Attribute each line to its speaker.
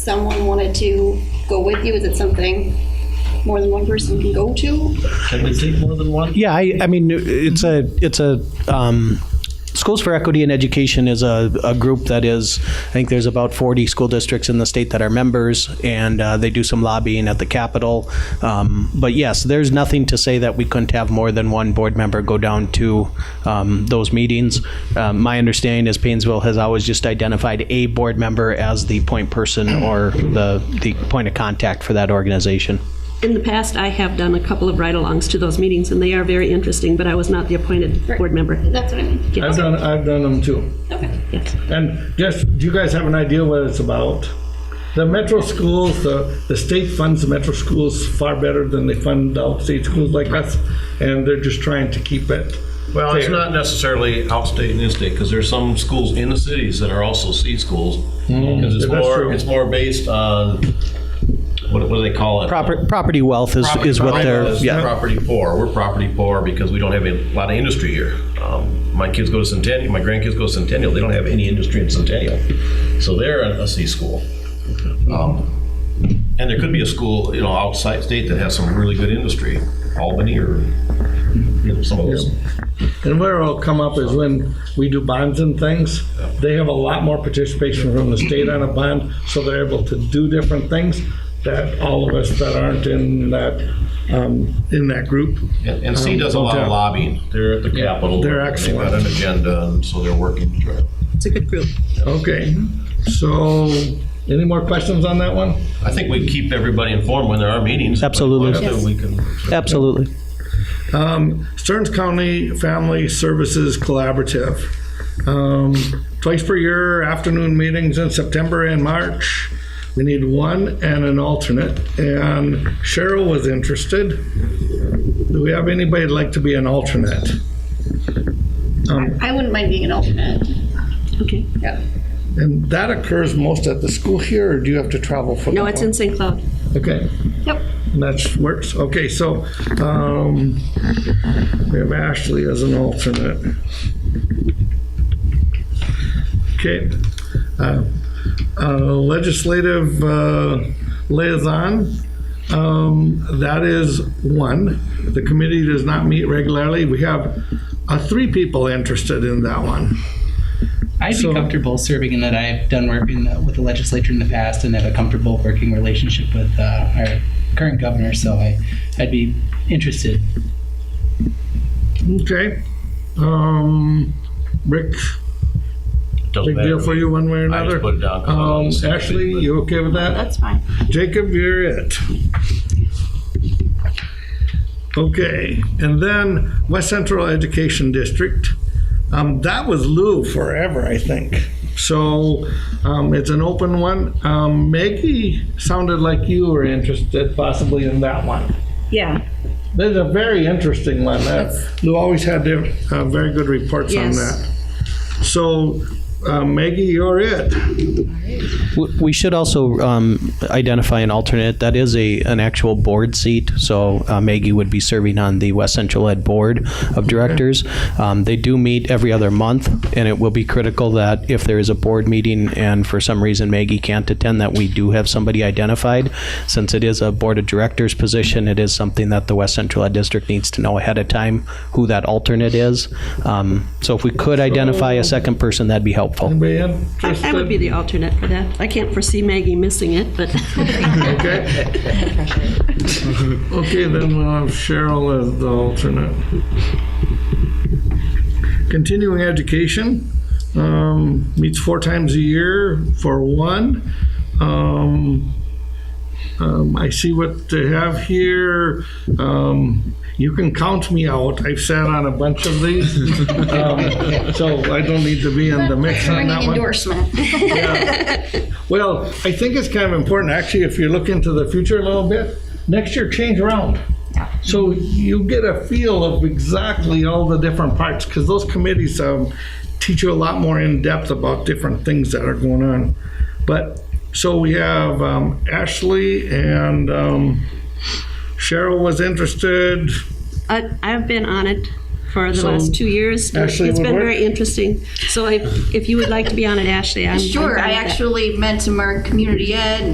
Speaker 1: someone wanted to go with you? Is it something more than one person can go to?
Speaker 2: Can we take more than one?
Speaker 3: Yeah, I, I mean, it's a, it's a, um, Schools for Equity in Education is a, a group that is, I think there's about 40 school districts in the state that are members, and uh, they do some lobbying at the Capitol. Um, But yes, there's nothing to say that we couldn't have more than one board member go down to um, those meetings. Um, My understanding is Painesville has always just identified a board member as the point person or the, the point of contact for that organization.
Speaker 4: In the past, I have done a couple of ride-alongs to those meetings, and they are very interesting, but I was not the appointed board member.
Speaker 1: That's what I mean.
Speaker 4: Yes,
Speaker 2: I've done, I've done them too.
Speaker 1: Okay.
Speaker 4: yes.
Speaker 2: And just, do you guys have an idea what it's about? The metro schools, the, the state funds the metro schools far better than they fund outstate schools like us, and they're just trying to keep it.
Speaker 5: Well, it's
Speaker 2: fair.
Speaker 5: not necessarily outstate and in-state, because there's some schools in the cities that are also C schools. 'Cause it's
Speaker 2: Hmm. that's true.
Speaker 5: more, it's more based on, what, what do they call it?
Speaker 3: Proper- Property wealth is,
Speaker 5: Property-
Speaker 3: is what
Speaker 5: property
Speaker 3: they're,
Speaker 5: is
Speaker 3: yeah.
Speaker 5: Property poor. We're property poor because we don't have a lot of industry here. Um, My kids go to Centennial, my grandkids go to Centennial, they don't have any industry in Centennial. So they're a a C school. Um, And there could be a school, you know, outside state that has some really good industry, Albany or, you know, some of those.
Speaker 2: And where it'll come up is when we do bonds and things, they have a lot more participation from the state on a bond, so they're able to do different things that all of us that aren't in that, um, in that group.
Speaker 5: And and C does a lot
Speaker 2: Okay.
Speaker 5: of lobbying. They're at the Capitol.
Speaker 2: They're
Speaker 5: They've got
Speaker 2: excellent.
Speaker 5: an agenda, and so they're working. to try-
Speaker 6: It's a good group.
Speaker 2: Okay, so any more questions on that one?
Speaker 5: I think we keep everybody informed when there are meetings.
Speaker 3: Absolutely.
Speaker 5: If we can-
Speaker 3: Absolutely.
Speaker 2: Um, Stearns County Family Services Collaborative. Um, Twice per year, afternoon meetings in September and March. We need one and an alternate, and Cheryl was interested. Do we have anybody that'd like to be an alternate?
Speaker 1: I wouldn't mind being an alternate.
Speaker 4: Okay.
Speaker 1: Yeah.
Speaker 2: And that occurs most at the school here, or do you have to travel for that?
Speaker 4: No, it's in St. Cloud.
Speaker 2: one? Okay.
Speaker 1: Yep.
Speaker 2: And That works. Okay, so um, we have Ashley as an alternate. Okay. uh, uh, Legislative uh, liaison, um, that is one. The committee does not meet regularly. We have uh, three people interested in that one.
Speaker 7: I'd
Speaker 2: So-
Speaker 7: be comfortable serving in that I've done work in the, with the legislature in the past and have a comfortable working relationship with uh, our current governor, so I, I'd be interested.
Speaker 2: Okay. Um, Rick,
Speaker 5: Doesn't
Speaker 2: big deal
Speaker 5: matter.
Speaker 2: for you one way or
Speaker 5: I
Speaker 2: another?
Speaker 5: just put it down. 'cause I'm on
Speaker 2: Um,
Speaker 5: the same
Speaker 2: Ashley,
Speaker 5: page, but-
Speaker 2: you okay with that?
Speaker 1: That's fine.
Speaker 2: Jacob, you're it. Okay, and then West Central Education District. Um, that was Lou forever, I think. So, um, it's an open one. Um, Maggie sounded like you were interested possibly in that one.
Speaker 4: Yeah,
Speaker 2: That's a very interesting one. Uh, Lou always had uh, very good reports on
Speaker 4: Yes.
Speaker 2: that. So, uh, Maggie, you're it.
Speaker 3: W- We should also um, identify an alternate. That is a, an actual board seat, so uh, Maggie would be serving on the West Central Ed Board of Directors. Um, They do meet every other month, and it will be critical that if there is a board meeting and for some reason Maggie can't attend, that we do have somebody identified. Since it is a Board of Directors position, it is something that the West Central Ed District needs to know ahead of time who that alternate is. Um, So if we could identify a second person, that'd be helpful.
Speaker 2: Anybody
Speaker 4: I I would be
Speaker 2: interested?
Speaker 4: the alternate for that. I can't foresee Maggie missing it, but
Speaker 2: Okay. Okay, then we'll have Cheryl as the alternate. Continuing education um, meets four times a year for one. Um, um, I see what they have here. Um, You can count me out. I've sat on a bunch of these. Um, So I don't need to be in the mix on that
Speaker 1: Bringing
Speaker 2: one.
Speaker 1: endorsement.
Speaker 2: Well, I think it's kind of important, actually, if you look into the future a little bit, next year, change around. So you get a feel of exactly all the different parts, because those committees um, teach you a lot more in-depth about different things that are going on. But, so we have um, Ashley and um, Cheryl was interested.
Speaker 4: I- I've been on it for the
Speaker 2: So,
Speaker 4: last two years. and
Speaker 2: Ashley
Speaker 4: It's
Speaker 2: would
Speaker 4: been
Speaker 2: work?
Speaker 4: very interesting. So if, if you would like to be on it, Ashley, I'm. I'm
Speaker 8: Sure,
Speaker 4: fine
Speaker 8: I
Speaker 4: with that.
Speaker 8: actually meant to mark community ed